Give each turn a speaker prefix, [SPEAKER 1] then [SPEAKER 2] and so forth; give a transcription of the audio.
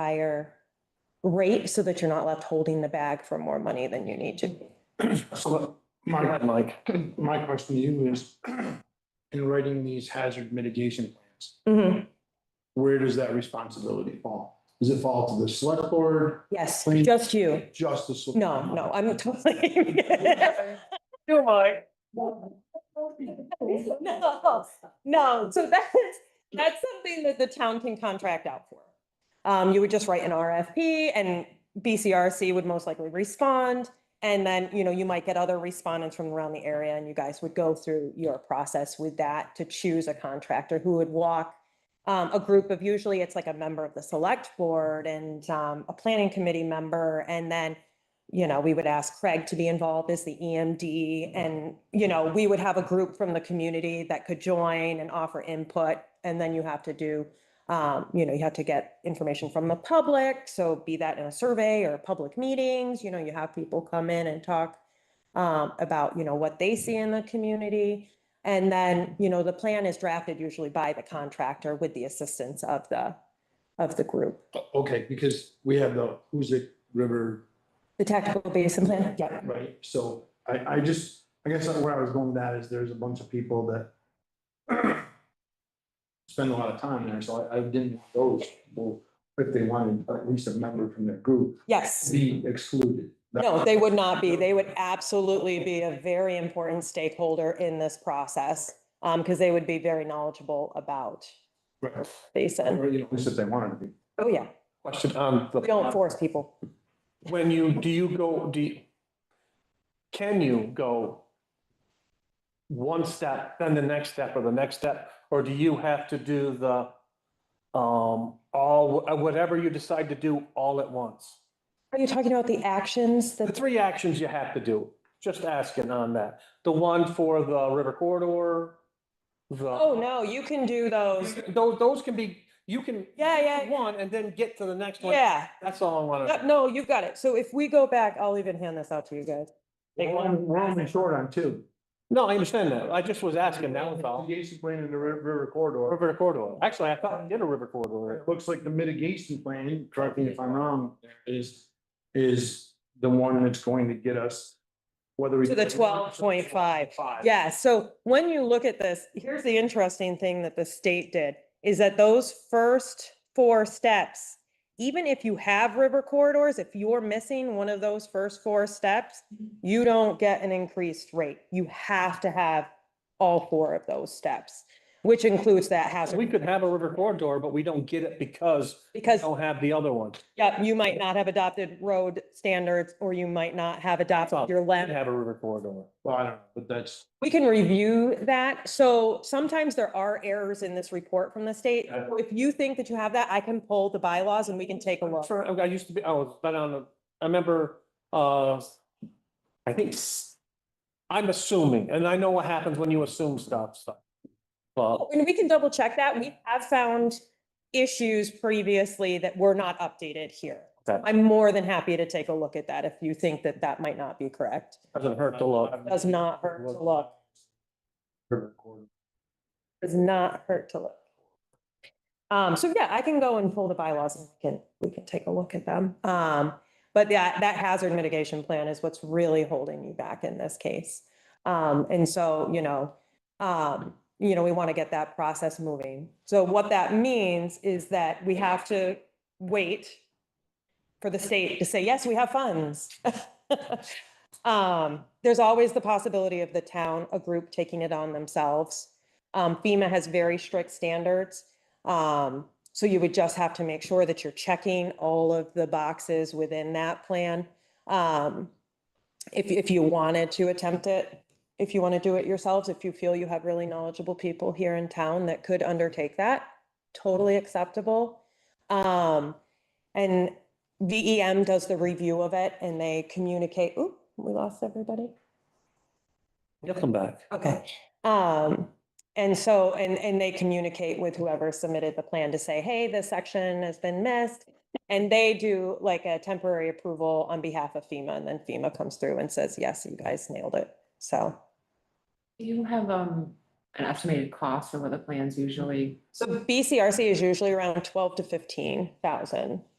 [SPEAKER 1] higher rate so that you're not left holding the bag for more money than you need to.
[SPEAKER 2] So my, Mike, my question to you is, in writing these hazard mitigation plans, where does that responsibility fall? Does it fall to the select board,
[SPEAKER 1] Yes,
[SPEAKER 2] Please.
[SPEAKER 1] just you.
[SPEAKER 2] just the? select-
[SPEAKER 1] No, no, I'm totally.
[SPEAKER 3] Do I?
[SPEAKER 1] No, no, so that's, that's something that the town can contract out for. Um, you would just write an RFP and BCRC would most likely respond. And then, you know, you might get other respondents from around the area and you guys would go through your process with that to choose a contractor who would walk um, a group of, usually it's like a member of the select board and, um, a planning committee member. And then you know, we would ask Craig to be involved as the EMD and, you know, we would have a group from the community that could join and offer input. And then you have to do, um, you know, you have to get information from the public. So be that in a survey or public meetings, you know, you have people come in and talk um, about, you know, what they see in the community. And then, you know, the plan is drafted usually by the contractor with the assistance of the, of the group.
[SPEAKER 2] Okay, because we have the Hoosic River,
[SPEAKER 1] The tactical basin plan, yeah.
[SPEAKER 2] right? So I, I just, I guess where I was going with that is there's a bunch of people that spend a lot of time there, so I, I didn't want those people, if they wanted at least a member from their group,
[SPEAKER 1] Yes.
[SPEAKER 2] be excluded.
[SPEAKER 1] No, they would not be. They would absolutely be a very important stakeholder in this process, um, because they would be very knowledgeable about
[SPEAKER 2] Right.
[SPEAKER 1] basin.
[SPEAKER 2] Or, you know, at least if they wanted to be.
[SPEAKER 1] Oh, yeah.
[SPEAKER 3] Question on
[SPEAKER 1] We don't
[SPEAKER 3] the,
[SPEAKER 1] force people.
[SPEAKER 3] when you, do you go, do you, can you go one step, then the next step or the next step, or do you have to do the, um, all, whatever you decide to do all at once?
[SPEAKER 1] Are you talking about the actions
[SPEAKER 3] The
[SPEAKER 1] that,
[SPEAKER 3] three actions you have to do, just asking on that. The one for the river corridor, the.
[SPEAKER 1] oh, no, you can do those.
[SPEAKER 3] Those, those can be, you can.
[SPEAKER 1] Yeah, yeah,
[SPEAKER 3] do One and then get to the next one.
[SPEAKER 1] Yeah.
[SPEAKER 3] That's all I want
[SPEAKER 1] Yep,
[SPEAKER 3] to.
[SPEAKER 1] No, you've got it. So if we go back, I'll even hand this out to you guys. Take
[SPEAKER 2] We're on- we're only short on two.
[SPEAKER 3] No, I understand that. I just was asking, that was all.
[SPEAKER 2] Mitigation plan and the ri- river corridor.
[SPEAKER 3] River corridor. Actually, I thought I did a river corridor.
[SPEAKER 2] It looks like the mitigation plan, correct me if I'm wrong, is, is the one that's going to get us whether we.
[SPEAKER 1] To the 12.5. Yeah, so when you look at this, here's the interesting thing that the state did, is that those first four steps, even if you have river corridors, if you're missing one of those first four steps, you don't get an increased rate. You have to have all four of those steps, which includes that hazard.
[SPEAKER 3] We could have a river corridor, but we don't get it because we
[SPEAKER 1] Because
[SPEAKER 3] don't have the other one.
[SPEAKER 1] yeah, you might not have adopted road standards, or you might not have adopted
[SPEAKER 3] all.
[SPEAKER 1] your
[SPEAKER 3] We
[SPEAKER 1] land
[SPEAKER 3] have a river corridor.
[SPEAKER 2] Well, I don't know, but that's,
[SPEAKER 1] We can review that. So sometimes there are errors in this report from the state.
[SPEAKER 2] Yeah.
[SPEAKER 1] So If you think that you have that, I can pull the bylaws and we can take a look.
[SPEAKER 3] For, I used to be, I was, but on, the- I remember, uh, I think, s- I'm assuming, and I know what happens when you assume stuff, so. Well,
[SPEAKER 1] And we can double check that. We have found issues previously that were not updated here.
[SPEAKER 3] Okay.
[SPEAKER 1] I'm more than happy to take a look at that if you think that that might not be correct.
[SPEAKER 3] doesn't hurt to look.
[SPEAKER 1] Does not hurt to look.
[SPEAKER 2] river corridor.
[SPEAKER 1] Does not hurt to look. Um, so yeah, I can go and pull the bylaws and we can, we can take a look at them. Um, but that, that hazard mitigation plan is what's really holding you back in this case. Um, and so, you know, um, you know, we want to get that process moving. So what that means is that we have to wait for the state to say, yes, we have funds. Um, there's always the possibility of the town, a group taking it on themselves. Um, FEMA has very strict standards. Um, so you would just have to make sure that you're checking all of the boxes within that plan. Um, if, if you wanted to attempt it, if you want to do it yourselves, if you feel you have really knowledgeable people here in town that could undertake that, totally acceptable. Um, and VEM does the review of it and they communicate, ooh, we lost everybody.
[SPEAKER 3] You'll come back.
[SPEAKER 1] Okay. Um, and so, and, and they communicate with whoever submitted the plan to say, hey, this section has been missed. And they do like a temporary approval on behalf of FEMA and then FEMA comes through and says, yes, you guys nailed it. So.
[SPEAKER 4] Do you have um an estimated cost of what the plans usually?
[SPEAKER 1] So BCRC is usually around twelve to fifteen thousand.